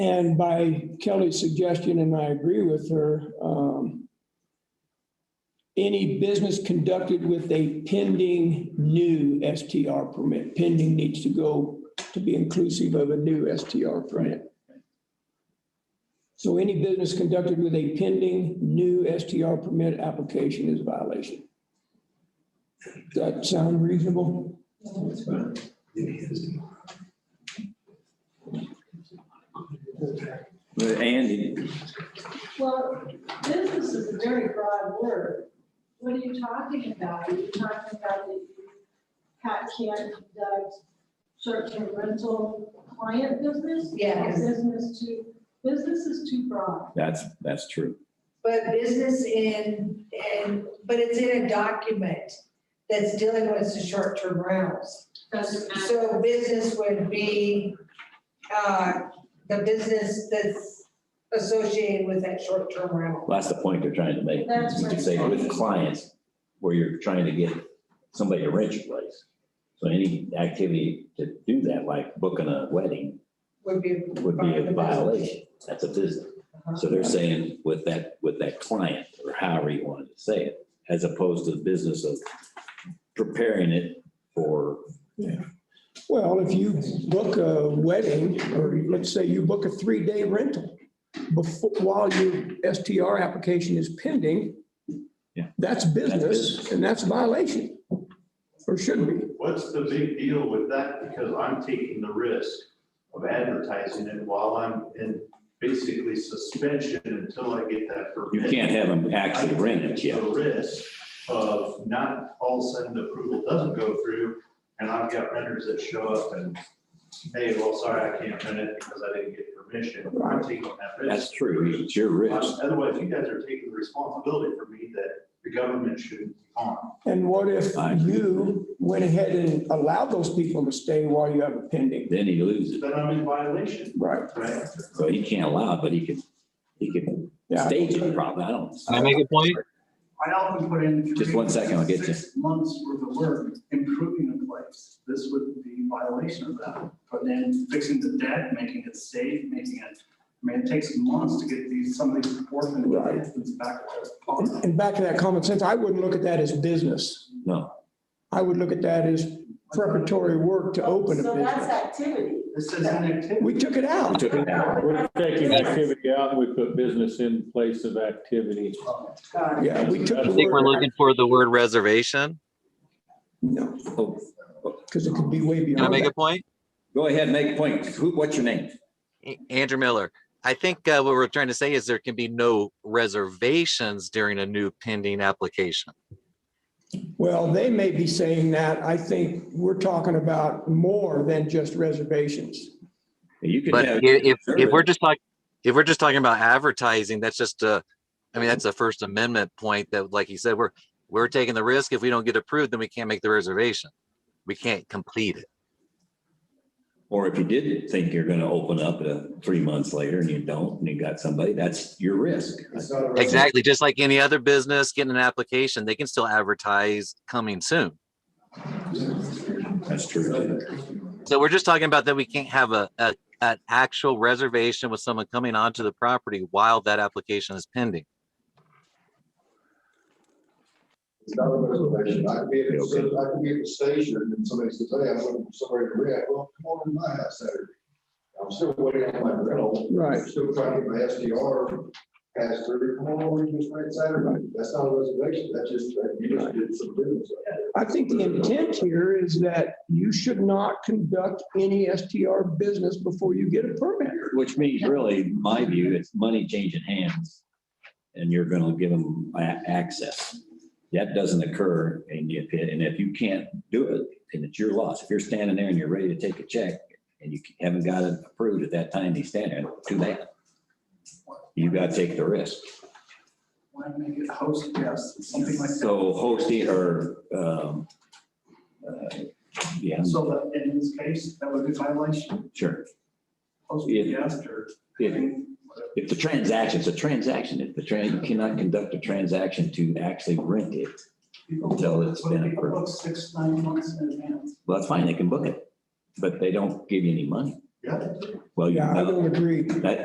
And by Kelly's suggestion, and I agree with her, um, any business conducted with a pending new STR permit, pending needs to go to be inclusive of a new STR permit. So any business conducted with a pending new STR permit application is a violation. Does that sound reasonable? That's fine. But Andy, Well, business is a very broad word. What are you talking about? Are you talking about that you ca- can't conduct short-term rental client business? Yes. Business too, business is too broad. that's, that's true. But business in, and, but it's in a document that's dealing with the short-term rentals. Doesn't So business would be, uh, the business that's associated with that short-term rental. Well, That's the point they're trying to make. That's You could right. say with clients, where you're trying to get somebody to rent your place. So any activity to do that, like booking a wedding, Would be. would be a violation. That's a business. So they're saying with that, with that client, or however you wanted to say it, as opposed to the business of preparing it for, Well, if you book a wedding, or let's say you book a three-day rental before, while your STR application is pending, Yeah. that's business. business and that's a violation, or should be. What's the big deal with that? Because I'm taking the risk of advertising it while I'm in basically suspension until I get that you permit. can't have them actually rent it yet. The risk of not all of a sudden the approval doesn't go through, and I've got renters that show up and, hey, well, sorry, I can't rent it because I didn't get permission. I'm taking that risk. That's true. It's your risk. Otherwise, you guys are taking the responsibility for me that the government shouldn't be on. And what if I agree. you went ahead and allowed those people to stay while you have a pending? Then he loses. Then I'm in violation, Right, right? So he can't allow, it, but he could, he could yeah. stage it probably. I don't. Can I make a point? I often put in. Just one second, I'll get you. Six months worth of work improving a place. This would be violation of that. But then fixing the deck, making it safe, making it, I mean, it takes months to get these, some of these orphan Right. kids back. And and back to that common sense, I wouldn't look at that as business. No. I would look at that as preparatory work to open a So that's business. activity. This is an activity. We took it We out. took it out. We're taking activity out, and we put business in place of activity. Yeah, we took I I the think we're word. looking for the word reservation. No, Oh, because it could be way Can I beyond make that. a point? Go ahead, make points. Who, what's your name? A- Andrew Miller, I think uh, what we're trying to say is there can be no reservations during a new pending application. Well, they may be saying that. I think we're talking about more than just reservations. You could But i- have, if, if sure. we're just like, if we're just talking about advertising, that's just a, I mean, that's a First Amendment point that, like you said, we're, we're taking the risk. If we don't get approved, then we can't make the reservation. We can't complete it. or if you did think you're gonna open up uh, three months later and you don't, and you got somebody, that's your risk. Exactly, just like any other business getting an application, they can still advertise coming soon. That's true. So we're just talking about that we can't have a, a, an actual reservation with someone coming onto the property while that application is pending. It's not a reservation. I could be at, a- I could be at the station and somebody says, hey, I'm looking for somebody to rent. Well, come over to my house Saturday. I'm still waiting on my rental. Right. Still trying to get my SDR passed through. Come on over and just rent Saturday. That's not a reservation. That's just, you just did some business. I think the intent here is that you should not conduct any STR business before you get a permit. Which means really, in my view, it's money changing hands and you're gonna give them a- access. That doesn't occur and if, and if you can't do it, then it's your loss. If you're standing there and you're ready to take a check and you haven't got it approved at that time, you stand there, too bad. You gotta take the risk. Why make it host guest, something like that? So hosting or, um, uh, yeah, So that in this case, that would be violation, sure. host Yeah. guest or. If, if the transaction, it's a transaction, if the tran, you cannot conduct a transaction to actually rent it. Until it's been People approved. book Six, nine months in advance. Well, that's fine, they can book it, but they don't give you any money. Yeah. Well, you Yeah, I know, don't agree. that,